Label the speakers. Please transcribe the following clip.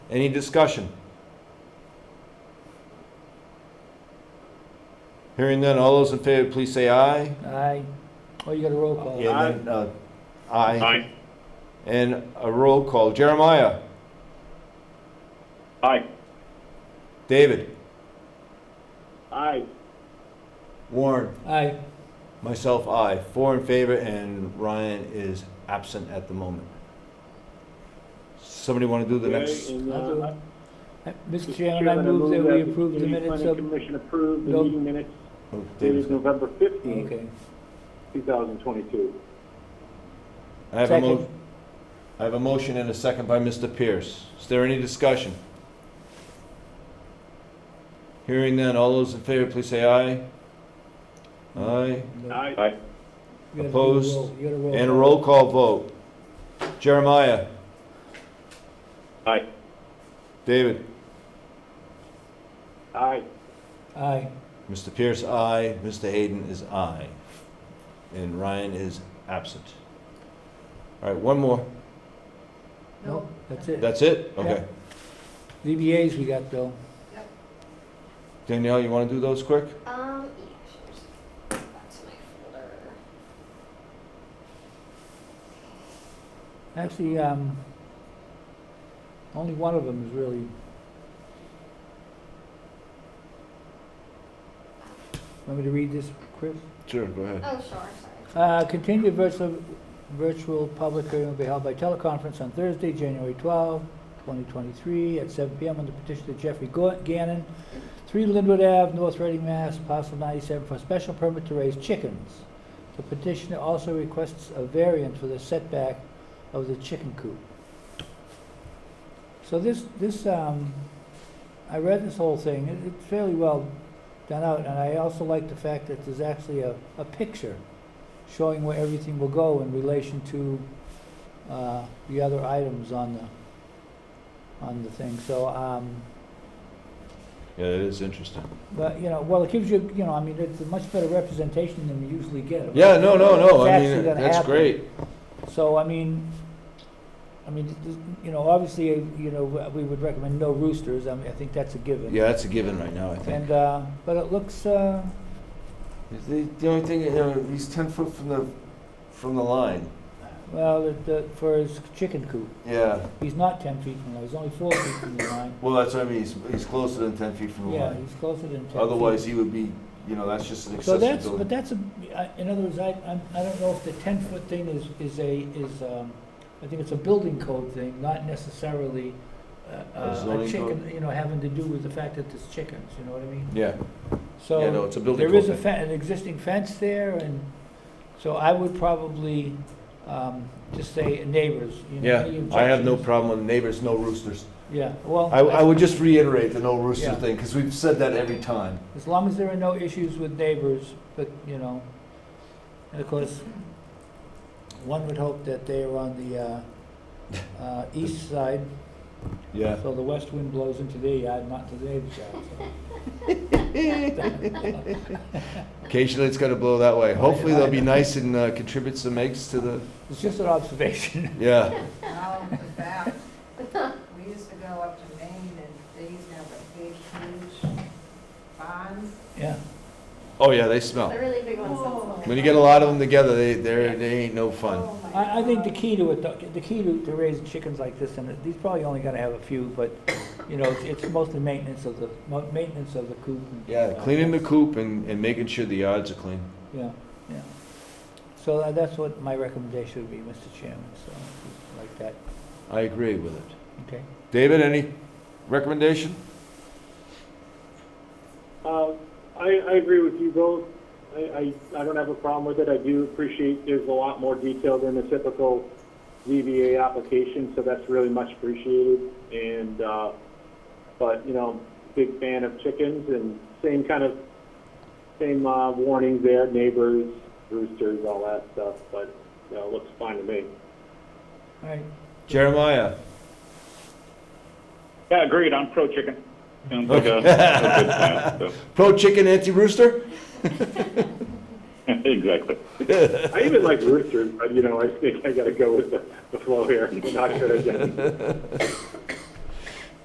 Speaker 1: Any discussion? Hearing none, all those in favor, please say aye.
Speaker 2: Aye. Oh, you got a roll call.
Speaker 1: And then, uh, Aye.
Speaker 3: Aye.
Speaker 1: And a roll call. Jeremiah?
Speaker 3: Aye.
Speaker 1: David?
Speaker 3: Aye.
Speaker 1: Warren?
Speaker 2: Aye.
Speaker 1: Myself, aye. Four in favor, and Ryan is absent at the moment. Somebody want to do the next?
Speaker 3: And,
Speaker 2: I'll
Speaker 3: uh,
Speaker 2: do it. Uh, Mr.
Speaker 3: Mr.
Speaker 2: Chairman, I move that we approve the minutes
Speaker 3: Planning
Speaker 2: of,
Speaker 3: Commission approved the
Speaker 2: Nope.
Speaker 3: meeting minutes
Speaker 1: Oh, David's
Speaker 3: dated
Speaker 1: got-
Speaker 3: November 15th,
Speaker 2: okay.
Speaker 3: 2022.
Speaker 1: I have a mo,
Speaker 2: Second.
Speaker 1: I have a motion and a second by Mr. Pierce. Is there any discussion? Hearing none, all those in favor, please say aye. Aye.
Speaker 3: Aye.
Speaker 2: You gotta do a
Speaker 1: Opposed.
Speaker 2: roll- You got a roll.
Speaker 1: And a
Speaker 2: call.
Speaker 1: roll call vote. Jeremiah?
Speaker 3: Aye.
Speaker 1: David?
Speaker 3: Aye.
Speaker 2: Aye.
Speaker 1: Mr. Pierce, aye. Mr. Hayden is aye. And Ryan is absent. All right, one more.
Speaker 2: No, that's it.
Speaker 1: That's it? Okay.
Speaker 2: DBAs we got though.
Speaker 1: Danielle, you want to do those quick?
Speaker 4: Um, yeah, sure. Back to my folder.
Speaker 2: Actually, um, only one of them is really. Want me to read this, Chris?
Speaker 1: Sure, go ahead.
Speaker 4: Oh, sure, sorry.
Speaker 2: Uh, Continued virtual, virtual public hearing will be held by teleconference on Thursday, January 12, 2023, at 7 PM on the petition of Jeffrey Go- Gannon, 3 Linwood Ave, North Reading, Mass., parcel 97, for a special permit to raise chickens. The petitioner also requests a variance for the setback of the chicken coop. So this, this, um, I read this whole thing, It- it's fairly well done out, and I also like the fact that there's actually a, a picture showing where everything will go in relation to uh, the other items on the, on the thing. So, um,
Speaker 1: Yeah, that is interesting.
Speaker 2: but, you know, well, it gives you, you know, I mean, it's a much better representation than we usually get.
Speaker 1: Yeah, no, no, no.
Speaker 2: It's
Speaker 1: I
Speaker 2: actually
Speaker 1: mean,
Speaker 2: gonna
Speaker 1: that's
Speaker 2: happen.
Speaker 1: great.
Speaker 2: So, I mean, I mean, th- th- you know, obviously, uh, you know, we would recommend no roosters. I mean, I think that's a given.
Speaker 1: Yeah, that's a given right now, I think.
Speaker 2: And, uh, but it looks, uh,
Speaker 1: The, the only thing, you know, he's ten foot from the, from the line.
Speaker 2: well, it- the- for his chicken coop,
Speaker 1: Yeah,
Speaker 2: he's not 10 feet from the line, he's only 4 feet from the line.
Speaker 1: well, that's what I mean, he's, he's closer than ten feet from the
Speaker 2: Yeah,
Speaker 1: line.
Speaker 2: he's closer than 10 feet.
Speaker 1: Otherwise, he would be, you know, that's just an
Speaker 2: So
Speaker 1: accessory
Speaker 2: that's, but
Speaker 1: building.
Speaker 2: that's, a I- in other words, I, I'm- I don't know if the ten-foot thing is, is a, is, um, I think it's a building code thing, not necessarily uh, uh, a
Speaker 1: zoning
Speaker 2: chicken, you know, having to do with the fact that there's chickens, you know what I mean?
Speaker 1: Yeah, yeah, no,
Speaker 2: So,
Speaker 1: it's a building.
Speaker 2: there is a
Speaker 1: code thing.
Speaker 2: fe- an existing fence there, and so I would probably um, just say neighbors, you know. any
Speaker 1: Yeah, I have no
Speaker 2: objections?
Speaker 1: problem with neighbors, no roosters.
Speaker 2: Yeah, well.
Speaker 1: I, I would just reiterate the no rooster
Speaker 2: Yeah.
Speaker 1: thing, because we've said that every time.
Speaker 2: As long as there are no issues with neighbors, but, you know, and of course, one would hope that they are on the, uh, uh, east side,
Speaker 1: Yeah.
Speaker 2: so the west wind blows into their yard, not to the neighbor's yard, so.
Speaker 1: Occasionally, it's gonna blow that way. Hopefully, they'll be nice and uh, contribute some eggs to the,
Speaker 2: It's just an observation.
Speaker 1: yeah.
Speaker 5: Now, the back, Oh, we used to go up to Maine and they used to have a big huge barn.
Speaker 2: Yeah,
Speaker 1: Oh, yeah, they smell.
Speaker 4: The really big ones. that's-
Speaker 1: When you get a lot of them together, they, they're, they ain't no fun.
Speaker 5: Oh, my
Speaker 2: I, I think the
Speaker 5: God.
Speaker 2: key to it, though- the key to, to raising chickens like this, and these probably only gonna have a few, but, you know, it's- it's mostly maintenance of the, mo- maintenance of the coop. and-
Speaker 1: Yeah, cleaning the coop and, and making sure the yards are clean.
Speaker 2: Yeah, yeah. So tha- that's what my recommendation would be, Mr. Chairman, so, like that,
Speaker 1: I agree with it.
Speaker 2: okay?
Speaker 1: David, any recommendation?
Speaker 3: Uh, I, I agree with you both. I, I, I don't have a problem with it. I do appreciate there's a lot more detail than the typical ZBA application, so that's really much appreciated. And, uh, but, you know, big fan of chickens and same kind of, same, uh, warnings there, neighbors, roosters, all that stuff, but, you know, it looks fine to me.
Speaker 2: All right,
Speaker 1: Jeremiah?
Speaker 6: Yeah, agreed. I'm pro chicken. Sounds like a, a good plan.
Speaker 1: Okay. Pro chicken, anti rooster?
Speaker 6: So. exactly.
Speaker 3: I even like roosters, but, you know, I think I gotta go with the, the flow here. Not good again.